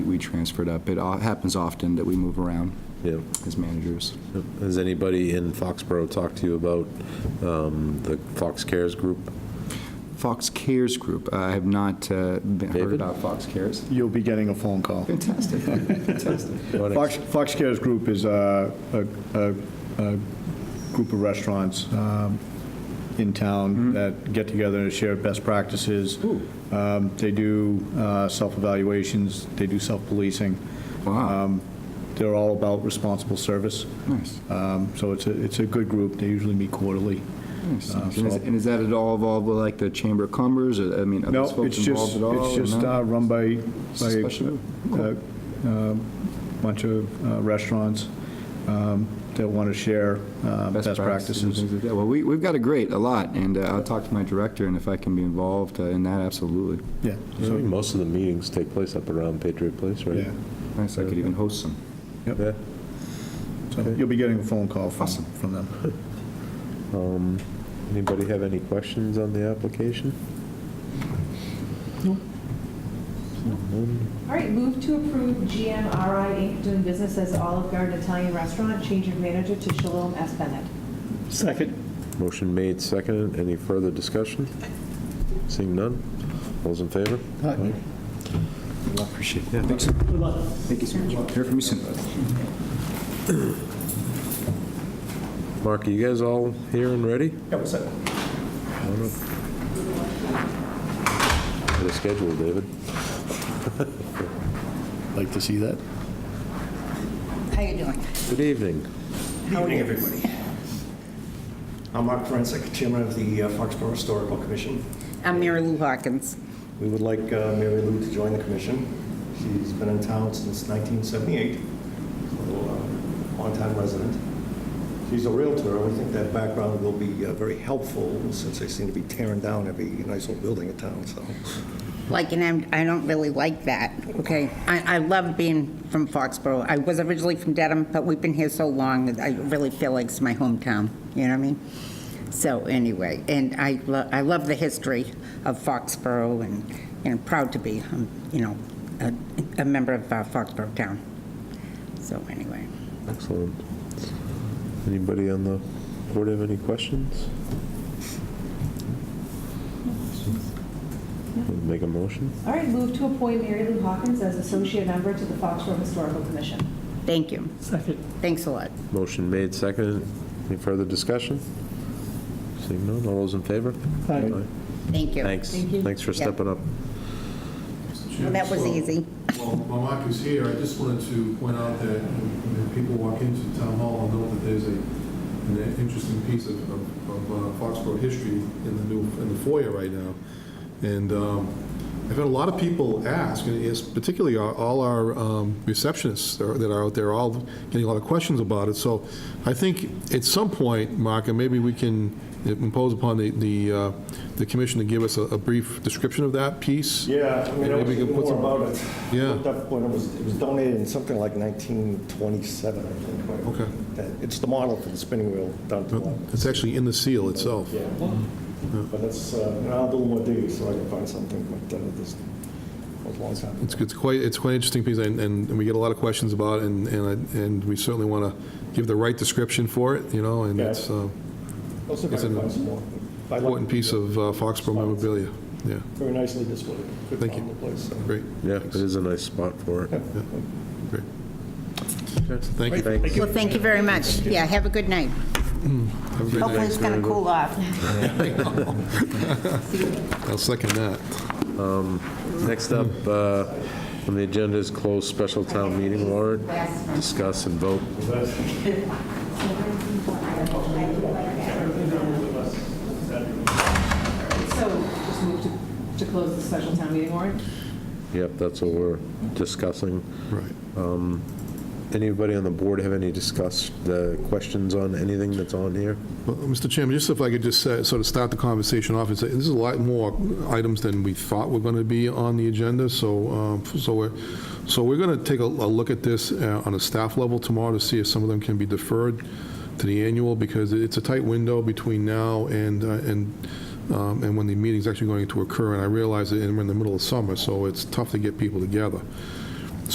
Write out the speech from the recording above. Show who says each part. Speaker 1: transferred up. It o- happens often that we move around
Speaker 2: Yeah.
Speaker 1: as managers.
Speaker 2: Has anybody in Foxborough talked to you about um, the Fox Cares group?
Speaker 1: Fox Cares Group, I have not uh, been- heard
Speaker 2: David?
Speaker 1: about Fox Cares.
Speaker 3: You'll be getting a phone call.
Speaker 1: Fantastic, fantastic.
Speaker 2: What
Speaker 3: Fox, Fox Cares Group is uh, a, a, a, a group of restaurants um, in town that get together and share best practices. Um, They do uh, self-evaluations, they do self-policing.
Speaker 1: Wow.
Speaker 3: Um, They're all about responsible service.
Speaker 1: Nice.
Speaker 3: Um, So it's a, it's a good group, they usually meet quarterly.
Speaker 1: Nice.
Speaker 3: Uh,
Speaker 1: And is-
Speaker 3: so-
Speaker 1: and is that at all involved with like the Chamber of Commerce? Or, I mean, are
Speaker 3: No,
Speaker 1: those folks
Speaker 3: it's
Speaker 1: involved
Speaker 3: just,
Speaker 1: at all?
Speaker 3: it's
Speaker 1: or
Speaker 3: just
Speaker 1: no?
Speaker 3: uh, run by,
Speaker 1: It's
Speaker 3: by
Speaker 1: a
Speaker 3: a
Speaker 1: special- Cool.
Speaker 3: a bunch of uh, restaurants um, that want to share uh, best
Speaker 1: and
Speaker 3: practices.
Speaker 1: things like that. Well, we, we've got a great, a lot, and uh, I'll talk to my director, and if I can be involved uh, in that, absolutely.
Speaker 3: Yeah,
Speaker 2: I think Most of the meetings take place up around Patriot Place, right?
Speaker 3: yeah.
Speaker 1: Nice, I could even host some.
Speaker 2: Yeah.
Speaker 3: So you'll be getting a phone call from,
Speaker 1: Awesome.
Speaker 3: from them.
Speaker 2: Um, Anybody have any questions on the application?
Speaker 4: All right, move to approve GMRI Inc. doing business as Olive Garden Italian Restaurant, change of manager to Shalom S. Bennett.
Speaker 5: Second.
Speaker 2: Motion made, seconded. Any further discussion? Seeing none? All's in favor?
Speaker 5: Aye.
Speaker 1: Appreciate it. Thanks. Thank you so much. Hear from you soon.
Speaker 2: Mark, are you guys all here and ready? Yeah, we're set. Got a schedule, David.
Speaker 3: Like to see that?
Speaker 6: How you doing?
Speaker 2: Good evening.
Speaker 6: How are
Speaker 7: Evening,
Speaker 6: you?
Speaker 7: everybody. I'm Mark Forensic, Chairman of the uh, Foxborough Historical Commission.
Speaker 6: I'm Mary Lou Hawkins.
Speaker 7: We would like uh, Mary Lou to join the commission. She's been in town since 1978, so uh, longtime resident. She's a Realtor, and we think that background will be uh, very helpful since they seem to be tearing down every nice old building in town, so.
Speaker 6: Like, and I'm, I don't really like that, okay? I, I love being from Foxborough. I was originally from Dedham, but we've been here so long that I really feel like it's my hometown, you know what I mean? So anyway, and I, lo- I love the history of Foxborough and, and proud to be, um, you know, a, a member of uh, Foxborough Town. So anyway.
Speaker 2: Excellent. Anybody on the board have any questions? Make a motion?
Speaker 4: All right, move to appoint Mary Lou Hawkins as associate member to the Foxborough Historical Commission.
Speaker 6: Thank you.
Speaker 5: Second.
Speaker 6: Thanks a lot.
Speaker 2: Motion made, seconded. Any further discussion? Seeing none, all those in favor?
Speaker 5: Aye.
Speaker 6: Thank you.
Speaker 2: Thanks.
Speaker 4: Thank you.
Speaker 2: Thanks for
Speaker 6: Yeah.
Speaker 2: stepping up.
Speaker 6: Well, that was
Speaker 8: So,
Speaker 6: easy.
Speaker 8: Well, while Mark is here, I just wanted to point out that when when people walk into Town Hall, they'll know that there's a, an interesting piece of, of of, uh, Foxborough history in the new, in the foyer right now. And um, I've had a lot of people ask, and it's particularly our- all our um, receptionists that are- that are out there, all getting a lot of questions about it. So I think at some point, Mark, and maybe we can impose upon the, the uh, the commission to give us a a brief description of that piece.
Speaker 7: Yeah, I mean, I
Speaker 8: Maybe we
Speaker 7: was
Speaker 8: can
Speaker 7: thinking
Speaker 8: put
Speaker 7: more
Speaker 8: some-
Speaker 7: about it.
Speaker 8: Yeah.
Speaker 7: Looked up when it was, it was donated in something like 1927, I think. when it-
Speaker 8: Okay.
Speaker 7: that- It's the model for the spinning wheel down to one.
Speaker 8: It's actually in the seal itself.
Speaker 7: Yeah, but that's, uh, and I'll do more digging so I can find something, but uh, this was a long time. ago.
Speaker 8: It's, it's quite, it's quite an interesting piece, and, and and we get a lot of questions about it, and, and I- and we certainly want to give the right description for it, you know, and
Speaker 7: Yeah.
Speaker 8: it's an
Speaker 7: I'll see if I
Speaker 8: it's
Speaker 7: can
Speaker 8: an
Speaker 7: find some more. I like-
Speaker 8: important piece of uh, Foxborough memorabilia. Yeah,
Speaker 7: Very nicely displayed. Good
Speaker 8: Thank
Speaker 7: found
Speaker 8: you.
Speaker 7: the place, so.
Speaker 8: great,
Speaker 2: Yeah, it is a nice spot for it.
Speaker 8: great. Thank you.
Speaker 2: Thanks.
Speaker 6: Well, thank you very much. Yeah, have a good night.
Speaker 8: Have a great
Speaker 6: Hopefully
Speaker 8: night.
Speaker 6: it's going to cool off.
Speaker 8: I'll second that.
Speaker 2: Next up uh, on the agenda is closed special town meeting warrant. Discuss and vote.
Speaker 4: So just move to, to close the special town meeting warrant.
Speaker 2: Yep, that's what we're discussing.
Speaker 8: Right.
Speaker 2: Anybody on the board have any discuss, the questions on anything that's on here?
Speaker 8: Well, Mr. Chairman, just if I could just uh, sort of start the conversation off and say, this is a lot more items than we thought were going to be on the agenda, so, um, so we're, so we're going to take a a look at this uh, on a staff level tomorrow to see if some of them can be deferred to the annual, because it's a tight window between now and, uh, and, um, and when the meeting's actually going to occur, and I realize that we're in the middle of summer, so it's tough to get people together.